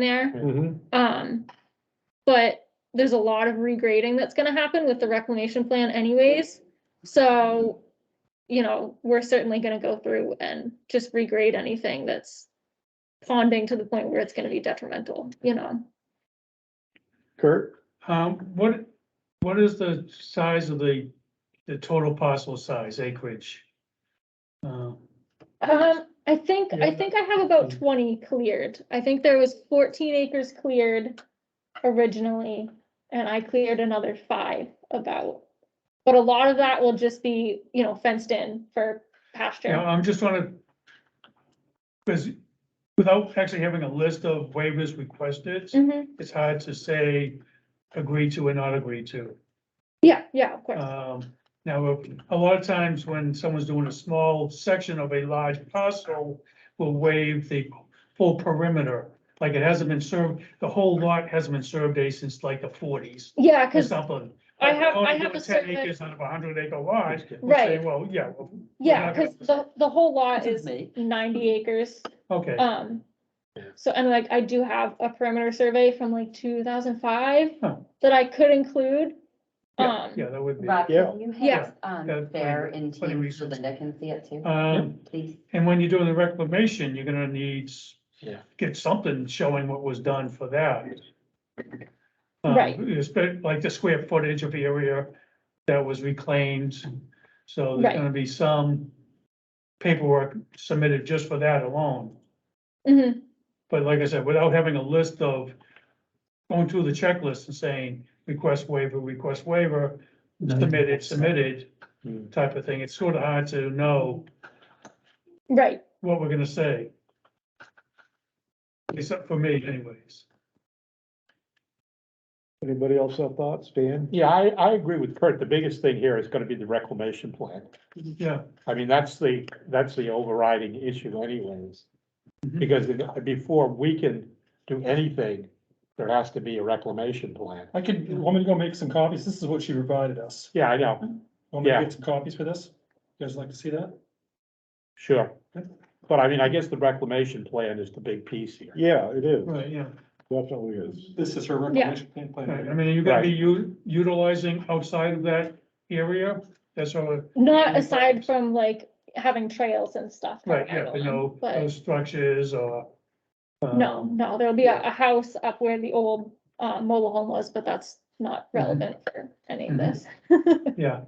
there. Mhm. Um, but there's a lot of regrading that's gonna happen with the reclamation plan anyways. So, you know, we're certainly gonna go through and just regrade anything that's ponding to the point where it's gonna be detrimental, you know? Kurt, Um, what, what is the size of the, the total parcel size acreage? Uh, Um, I think, I Yeah. Mm. think I have about twenty cleared. I think there was fourteen acres cleared originally, and I cleared another five about. But a lot of that will just be, you know, fenced in for Yeah, pasture. I'm just trying to, because without actually having a list of waivers requested, Mhm. it's hard to say agree to or not agree to. Yeah, yeah, of course. Um, now, a lot of times when someone's doing a small section of a large parcel, will waive the full perimeter. Like it hasn't been served, the whole lot hasn't been surveyed since like the forties Yeah, or because, something. I Like, have- oh, I you're have doing a Ten survey- acres out of a hundred acre lot. we'll say, right, Well, yeah, well, yeah, not gonna- because the, the whole lot This is is me. ninety acres. okay, Um, Yeah. so, and like, I do have a perimeter survey from like two thousand five Oh. that I could include. yeah, Um, yeah, that would be. Rob, Yeah. can you Yeah. have, um, Got Bear plenty- in plenty team so reasons. Linda can see it too, Um, please? and when you're doing the reclamation, you're gonna need. Yeah. Get something showing what was done for that. Um, Right. it's been like the square footage of area that was reclaimed, so Right. there's gonna be some. Paperwork submitted just for that alone. mhm, But like I said, without having a list of going through the checklist and saying, request waiver, request waiver, submitted, submitted, Hmm. type of thing, it's sort of hard to know Right. what we're gonna say. Except for me anyways. anybody else have thoughts, Dan? Yeah, I, I agree with Kurt. The biggest thing here is gonna be the reclamation plan. Yeah, I mean, that's the, that's the overriding issue anyways. Mm-hmm. Mhm. Because in- before we can do anything, there has to be a reclamation plan. I could, want me to go make some copies? This is what she provided us. Yeah, I know, Want me to Yeah. get some copies for this? You guys like to see that? sure. But I mean, I guess the reclamation plan is the big piece here. Yeah, it is, right, yeah, definitely is. This is her reclamation plan right, I mean, you're gonna be u- utilizing outside of that area, that's all, Not Mhm. aside from like having trails and stuff. right, coming yeah, out you of know, them, no But structures or. um, no, no, there'll be a, yeah. a house up where the old, uh, mobile home was, but that's not relevant for any of Mhm. this. Yeah,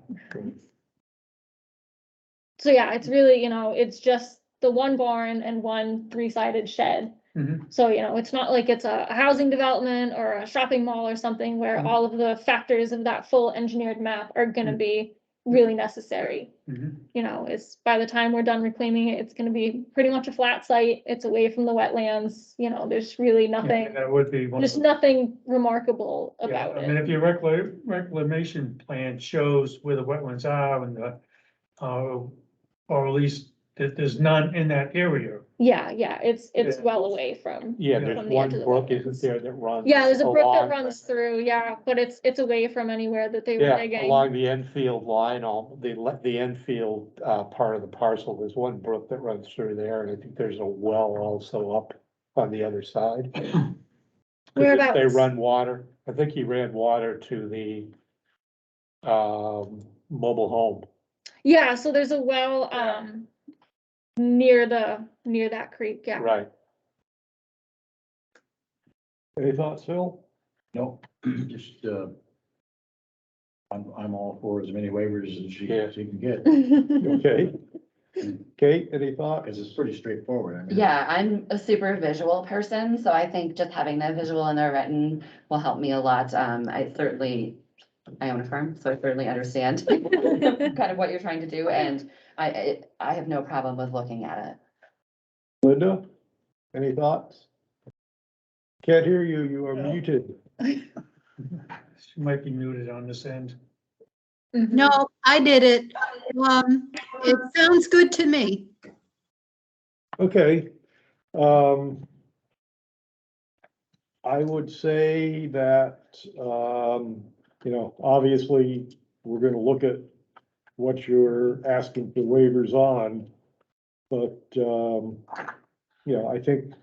So yeah, it's really, you know, it's just the one barn and one three-sided shed. mhm, So, you know, it's not like it's a a housing development or a shopping mall or something where Mhm. all of the factors of that full engineered map are gonna Mhm. be really necessary. mhm, you know, is by the time we're done reclaiming it, it's gonna be pretty much a flat site. It's away from the wetlands, you know, there's really yeah, nothing, That would be one of there's the. nothing remarkable Yeah, about I mean, it. if your recla- reclamation plan shows where the wetlands are and the, uh, or at least that there's none in that area. Yeah, yeah, it's, it's Yeah. well away from, Yeah, From there's the one edge of the brook, isn't wetlands. there, that runs? yeah, there's a brook that along- runs through, yeah, but it's, it's away from anywhere that they were Yeah, digging. along the Enfield line, all, the, le- the Enfield, uh, part of the parcel, there's one brook that runs through there, and I think there's a well also up on the other side. 'Cause if They Whereabouts? run water, I think he ran water to the, um, mobile home. Yeah, so there's a well, um, near the, near that creek, yeah. Right, Any thoughts, Phil? No, just, uh, I'm, I'm all for as many waivers as you, Yeah. as you can get, Mm-hmm. Okay. Kate, any thoughts? because it's pretty straightforward. I mean, Yeah, I'm a super visual person, so I think just having that visual in there written will help me a lot. Um, I certainly, I own a farm, so I certainly understand kind of what you're trying to do, and I, I, I have no problem with looking at it. Linda, any thoughts? Can't hear you, you are muted. She might be muted on this end. Mhm. No, I did it. Um, it sounds good to me. Okay, um. I would say that, um, you know, obviously, we're gonna look at what you're asking for waivers on. But, um, you know, I think